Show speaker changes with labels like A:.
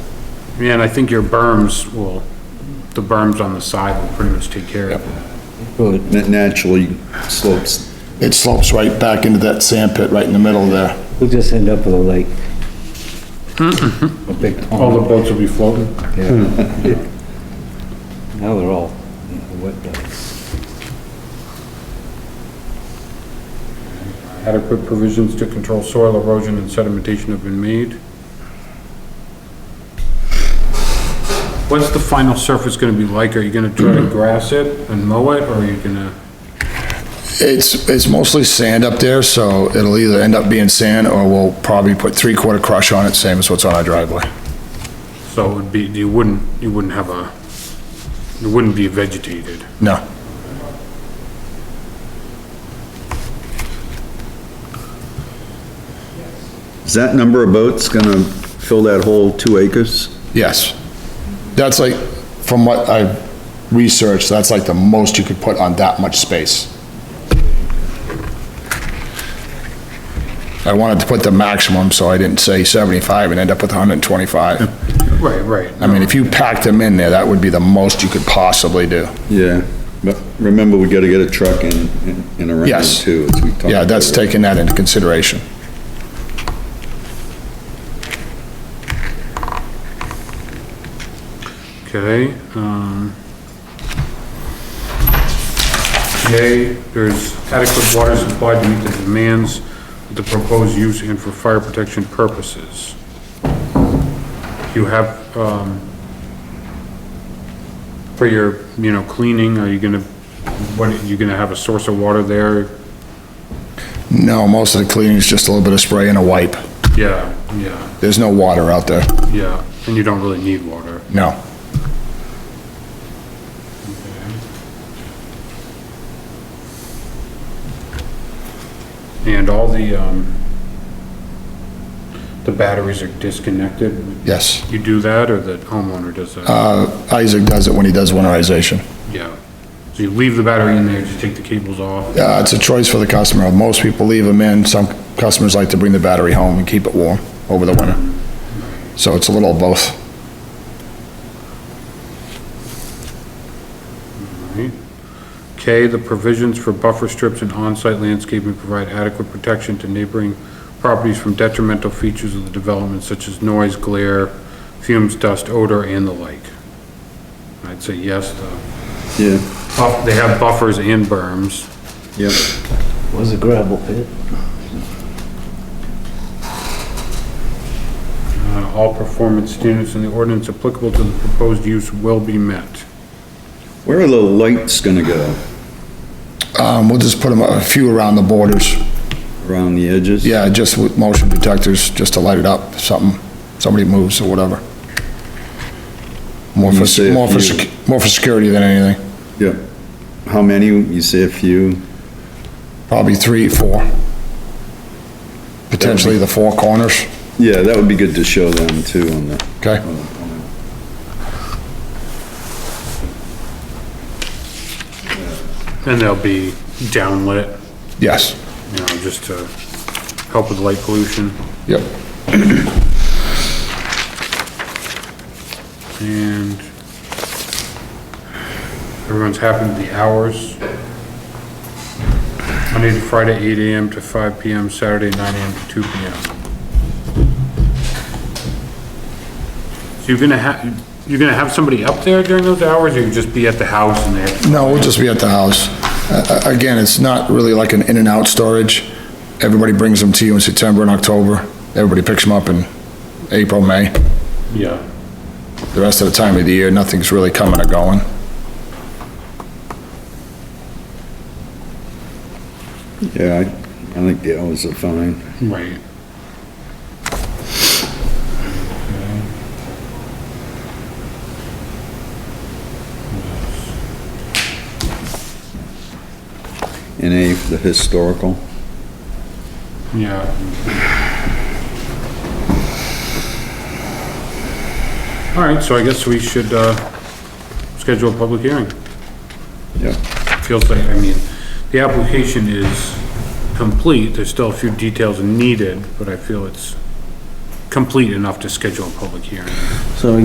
A: Yeah, and I think your berms will, the berms on the side will pretty much take care of it.
B: Good.
C: It naturally slopes.
D: It slopes right back into that sand pit right in the middle there.
B: We'll just end up with a lake. A big
A: All
B: pond.
A: the boats will be floating.
B: yeah. Now they're all wet docks.
A: Adequate provisions to control soil erosion and sedimentation have been made. What's the final surface gonna be like? Are you gonna try to grass it and mow it, or are you gonna?
D: It's, it's mostly sand up there, so it'll either end up being sand or we'll probably put three-quarter crush on it, same as what's on our driveway.
A: So it would be, you wouldn't, you wouldn't have a, it wouldn't be vegetated.
D: No.
C: Is that number of boats gonna fill that whole two acres?
D: Yes. That's like, from what I researched, that's like the most you could put on that much space. I wanted to put the maximum, so I didn't say 75 and end up with 125.
A: Right, right.
D: I mean, if you packed them in there, that would be the most you could possibly do.
C: Yeah, but remember, we gotta get a truck in, in- in around
D: Yes.
C: too. as we talked
D: Yeah, that's
C: about.
D: taking that into consideration.
A: Okay, um. Yay, there's adequate water supply to meet the demands of the proposed use and for fire protection purposes. You have, um, for your, you know, cleaning, are you gonna, what, are you gonna have a source of water there?
D: No, most of the cleaning is just a little bit of spray and a wipe.
A: Yeah, yeah,
D: There's no water out there,
A: yeah, and you don't really need water.
D: no.
A: And all the, um, the batteries are disconnected,
D: Yes.
A: You do that, or the homeowner does that?
D: Uh, Isaac does it when he does winterization.
A: Yeah. So you leave the battery in there, just take the cables off?
D: Uh, it's a choice for the customer. Most people leave them in. Some customers like to bring the battery home and keep it warm over the winter. So it's a little of both.
A: Right. K, the provisions for buffer strips and on-site landscaping provide adequate protection to neighboring properties from detrimental features of the development such as noise, glare, fumes, dust, odor, and the like. I'd say yes, the
C: Yeah,
A: buff- they have buffers and berms.
C: yeah.
B: Was a gravel pit.
A: Uh, All performance standards in the ordinance applicable to the proposed use will be met.
C: Where are the lights gonna go?
D: Um, we'll just put them, a few around the borders.
C: Around the edges?
D: Yeah, just with motion detectors, just to light it up, something, somebody moves or whatever. More
C: You say
D: for,
C: a
D: more for,
C: few.
D: sec- more for security than anything.
C: Yeah. How many? You say a few?
D: Probably three, four. Potentially the four corners,
C: Yeah, that would be good to show them too on the,
D: okay?
A: And they'll be downlit.
D: Yes,
A: you know, just to help with light pollution.
D: yep.
A: And everyone's happy with the hours. Monday to Friday, 8 AM to 5 PM, Saturday, 9 AM to 2 PM. So you're gonna have, you're gonna have somebody up there during those hours, or you just be at the house and they have?
D: No, we'll just be at the house. Uh, again, it's not really like an in and out storage. Everybody brings them to you in September and October. Everybody picks them up in April, May.
A: Yeah.
D: The rest of the time of the year, nothing's really coming or going.
C: yeah, I, I think the hours are fine.
A: Right.
C: And A for the historical.
A: Yeah. All right, so I guess we should, uh, schedule a public hearing.
C: Yeah.
A: Feels like, I mean, the application is complete, there's still a few details needed, but I feel it's complete enough to schedule a public hearing.
B: So